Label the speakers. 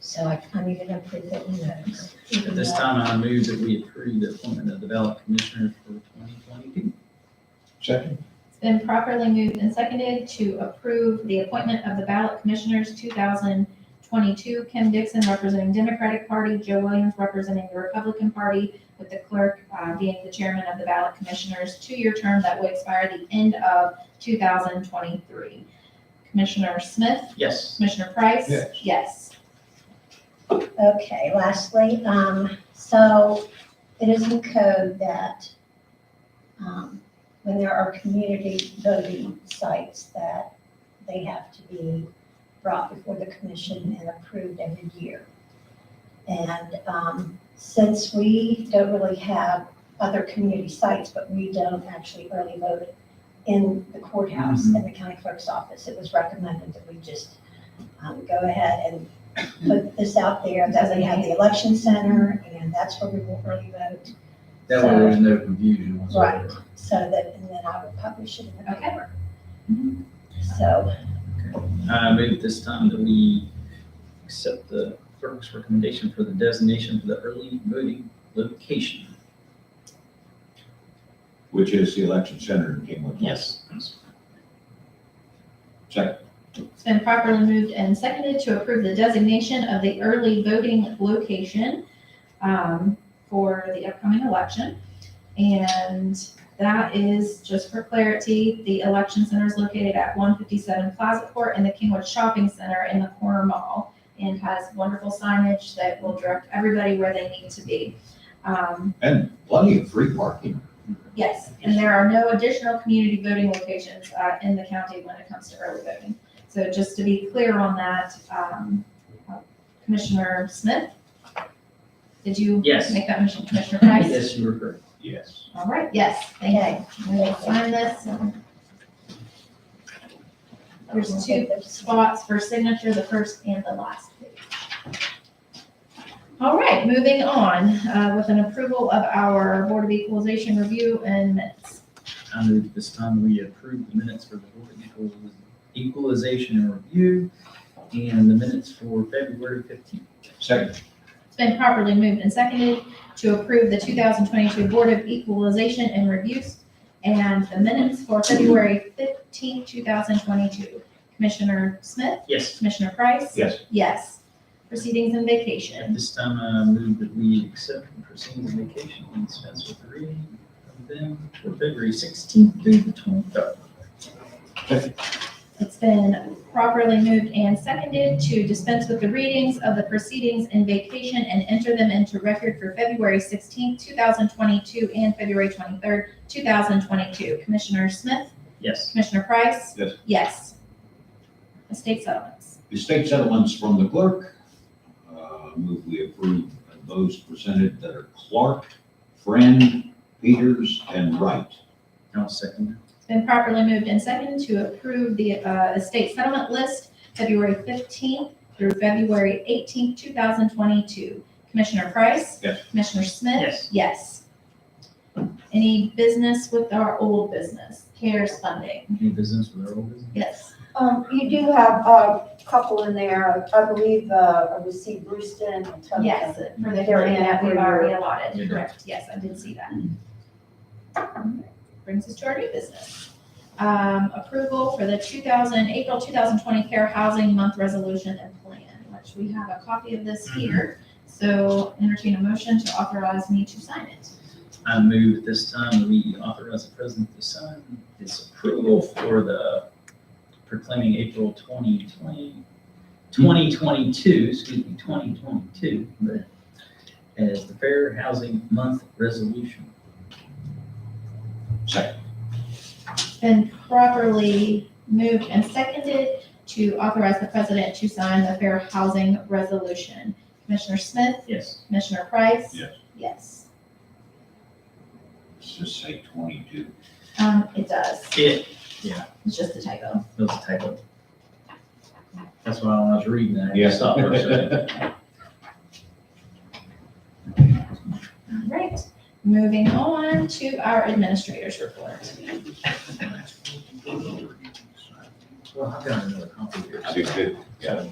Speaker 1: So I, I'm even gonna put that in notes.
Speaker 2: At this time, I move that we approve the appointment of development commissioner for twenty twenty-two.
Speaker 3: Second?
Speaker 4: It's been properly moved and seconded to approve the appointment of the ballot commissioners 2022. Kim Dixon representing Democratic Party, Joe Williams representing the Republican Party, with the clerk uh, being the chairman of the ballot commissioners, two-year term that would expire the end of 2023. Commissioner Smith,
Speaker 2: Yes.
Speaker 4: Commissioner Price?
Speaker 3: Yes.
Speaker 1: Okay, lastly, um, so it is in code that, um, when there are community voting sites that they have to be brought before the commission and approved every year. And, um, since we don't really have other community sites, but we don't actually early vote in the courthouse and the county clerk's office, it was recommended that we just, um, go ahead and put this out there, that we have the election center, and that's where we will early vote,
Speaker 5: That way there's no confusion whatsoever.
Speaker 1: so that, and then I will publish it in the
Speaker 4: Okay. Mm-hmm.
Speaker 1: paper. So,
Speaker 2: I move at this time that we accept the clerk's recommendation for the designation for the early voting location.
Speaker 3: Which is the election center in Kingwood.
Speaker 2: Yes.
Speaker 3: Second?
Speaker 4: It's been properly moved and seconded to approve the designation of the early voting location um, for the upcoming election. And that is, just for clarity, the election center is located at 157 Plaza Court in the Kingwood Shopping Center in the corner mall and has wonderful signage that will direct everybody where they need to be. Um,
Speaker 3: And plenty of free parking.
Speaker 4: Yes, and there are no additional community voting locations uh, in the county when it comes to early voting. So just to be clear on that, um, Commissioner Smith, did you
Speaker 2: Yes.
Speaker 4: make that motion, Commissioner Price?
Speaker 2: Yes, you were correct.
Speaker 3: Yes.
Speaker 4: All right, yes, thank
Speaker 1: okay.
Speaker 4: you. We'll sign this. There's two spots for signature, the first and the last page. All right, moving on uh, with an approval of our Board of Equalization review and minutes.
Speaker 2: I move at this time we approve the minutes for the Board of Equaliz- equalization and review and the minutes for February fifteenth.
Speaker 3: Second?
Speaker 4: It's been properly moved and seconded to approve the 2022 Board of Equalization and Reviews and the minutes for February 15, 2022. Commissioner Smith,
Speaker 2: Yes.
Speaker 4: Commissioner Price?
Speaker 3: Yes.
Speaker 4: Yes. Proceedings and
Speaker 2: At
Speaker 4: vacation.
Speaker 2: this time, I move that we accept and proceed with vacation and dispense with the reading of them for February sixteenth through the twenty-third.
Speaker 4: It's been properly moved and seconded to dispense with the readings of the proceedings and vacation and enter them into record for February 16, 2022 and February 23, 2022. Commissioner Smith,
Speaker 2: Yes.
Speaker 4: Commissioner Price?
Speaker 3: Yes.
Speaker 4: Yes. Estate settlements.
Speaker 3: Estate settlements from the clerk. Uh, Move we approve those presented that are Clark, Friend, Peters, and Wright.
Speaker 2: I'll second.
Speaker 4: It's been properly moved and seconded to approve the uh, estate settlement list February 15th through February 18th, 2022. Commissioner Price?
Speaker 3: Yes.
Speaker 4: Commissioner Smith?
Speaker 2: Yes.
Speaker 4: Yes. Any business with our old business? CARES funding?
Speaker 2: Any business with our old business?
Speaker 4: Yes.
Speaker 6: Um, you do have a couple in there, I believe, uh, I received Brewston and Tubman.
Speaker 4: Yes, for the
Speaker 6: They're
Speaker 4: hearing
Speaker 6: in
Speaker 4: that we've
Speaker 6: every
Speaker 4: already
Speaker 6: year.
Speaker 4: allotted,
Speaker 2: Yeah.
Speaker 4: correct, yes, I did see that. Mm-hmm. Alright, Brings us to our new business. Um, approval for the two thousand, April two thousand twenty care housing month resolution and plan, which we have a copy of this here. So entertain a motion to authorize me to sign it.
Speaker 2: I move at this time that we authorize the president to sign his approval for the proclaiming April 2020, 2022, excuse me, 2022, but as the Fair Housing Month Resolution.
Speaker 3: Second?
Speaker 4: It's Been properly moved and seconded to authorize the president to sign the fair housing resolution. Commissioner Smith,
Speaker 2: Yes.
Speaker 4: Commissioner Price?
Speaker 3: Yes.
Speaker 4: Yes.
Speaker 3: Let's just say twenty-two.
Speaker 4: Um, it does.
Speaker 2: It
Speaker 4: It's just a typo.
Speaker 2: was a typo. That's why when I was reading that, I just stopped for a second.
Speaker 4: All right. Moving on to our administrator's report.
Speaker 2: Well, I've got another copy here.
Speaker 3: Too good. Yeah.